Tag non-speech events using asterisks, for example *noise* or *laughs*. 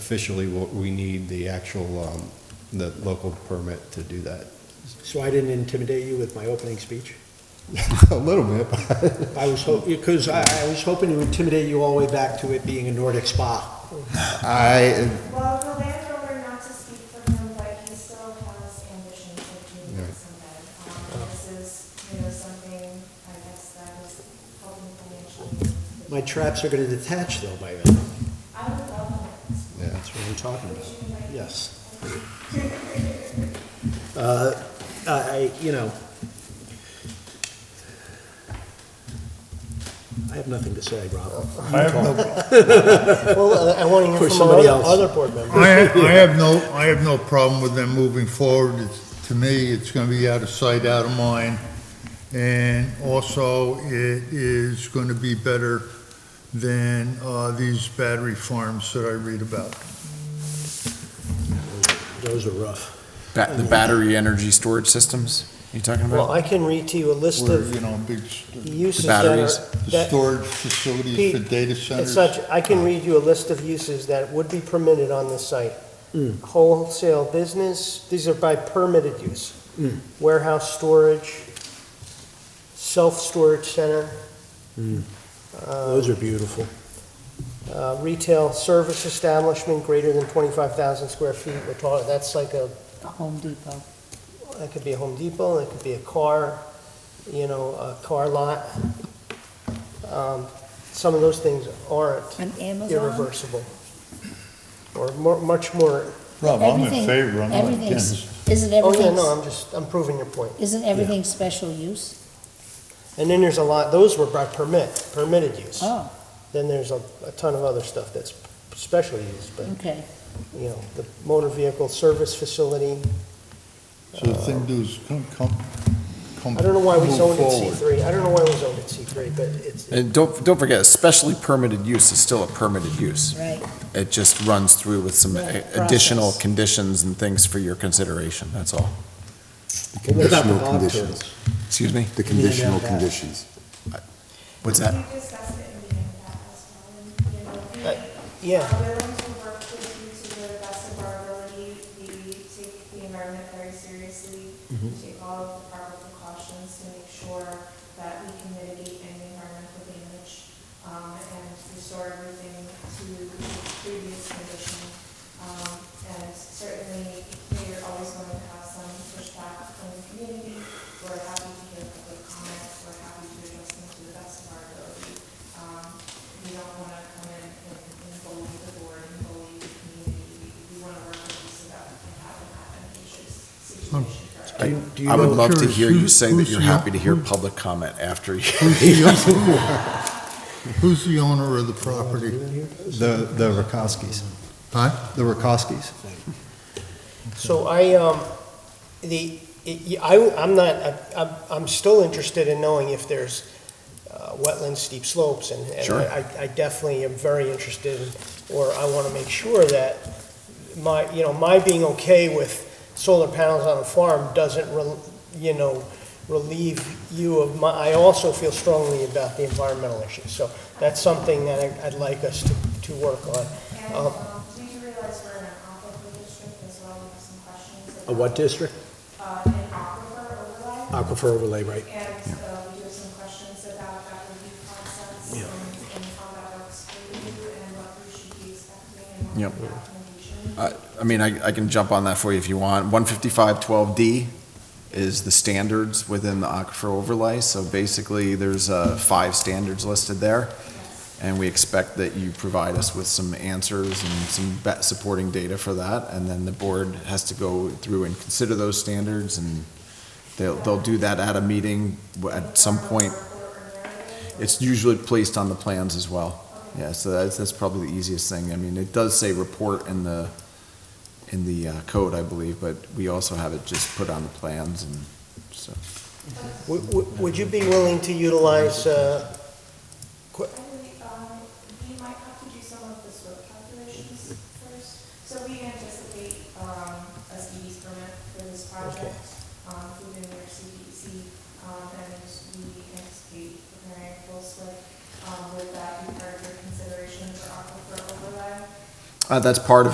officially, what we need the actual, um, the local permit to do that. *laughs* So I didn't intimidate you with my opening speech? A little bit, I was hoping, because I, I was hoping to intimidate you all the way back to it being a Nordic spa. I, Well, the landowner, not to speak for him, but he still has ambitions of doing Right. something. Um, This is, you know, something, I guess, that is helping financially. My traps are gonna detach though by then. I would love that. yeah. That's what I'm talking about. Yes. Uh, I, I- you know, I have nothing to say, Rob. I have no, Well, I want For to hear from somebody other, else. other board members. I have, I have no, I have no problem with them moving forward. It's, to me, it's gonna be out of sight, out of mind. And also, it is gonna be better than, uh, these battery farms that I read about. Those are rough. Ba- the battery energy storage systems you talking about? Well, I can read to you a list Where, of you know, big, st- uses that are. batteries, the that- storage facilities for data It's centers. Oh. such, I can read you a list of uses that would be permitted on this site. Hmm. Wholesale business, these are by permitted use. Hmm. Warehouse storage, self-storage center, Hmm. Those are beautiful. uh, retail service establishment greater than 25,000 square feet. We're talking, that's like a, a Home Depot. that could be a Home Depot, that could be a car, you know, a car lot. Um, Some of those things aren't An Amazon, irreversible, or more, much more Rob, I'm in everything- favor, I'm not everything's- against. isn't Oh, yeah, everything, no, I'm just, I'm proving your point. isn't everything special use? And then there's a lot, those were by permit, permitted use. Oh, Then there's a, a ton of other stuff that's special use, but, okay. you know, the motor vehicle service facility. So the thing to do is come, come, come. I don't know why we move zoned it forward. C3. I don't know why we zoned it C3, but it's, And don't, don't forget, especially permitted use is still a permitted use. Right. It just runs through with some Right, additional process. conditions and things for your consideration, that's all. What about the Conditional conditions, bobtails? Excuse me? the conditional conditions. What's that? We discussed it in the end, that as well, and, you know, we Uh, yeah. are willing to work with you to the best of our ability. We take the environment very seriously, We take all of the proper precautions to make sure that we can mitigate any environmental damage, um, and restore everything to previous condition. Um, and certainly, we're always going to have some pushback from the community. We're happy to hear public comments, we're happy to address them to the best of our ability. Um, we don't want to come in and and bully the board and bully the community. We want to work with you so that we can have an advantageous situation for everyone. I do you I know- would love to curious, hear who- you say that who's you're the- happy to hear who- public comment after you. Who's the owner of the property? The, the Rakoskis, Huh? the Rakoskis. so I, um, the, it- I, I'm not, I'm, I'm still interested in knowing if there's uh, wetland steep slopes, and, and Sure. I, I definitely am very interested, in- or I want to make sure that my, you know, my being okay with solar panels on a farm doesn't, rel- you know, relieve you of my, I also feel strongly about the environmental issues, so that's something that I- I'd like us to, to work on. And Um, um, we do realize we're in an aquifer district as well, we have some questions. A what district? about, uh, An aquifer overlay. Aquifer overlay, right? And uh, we do have some questions about that review process and and how that works for you and what we should be expecting and Yep. what the documentation. I I mean, I, I can jump on that for you if you want. 155-12D is the standards within the aquifer overlay. So basically, there's uh, five standards listed there. And we expect that you provide us with some answers and some ba- supporting data for that. And then the board has to go through and consider those standards and they'll, they'll do that at a meeting w- at some point. It's usually placed on the plans as well. Yeah, so that's, that's probably the easiest thing. I mean, it does say report in the, in the uh, code, I believe, but we also have it just put on the plans and so. Would- Would would you be willing to utilize, uh, qu- I believe, um, we might have to do some of the slope calculations first. So we anticipate, um, a CD's permit for this project, um, within their CDC. Um, and we anticipate preparing full slip, um, with that be part of your consideration for aquifer overlay. Uh, that's part of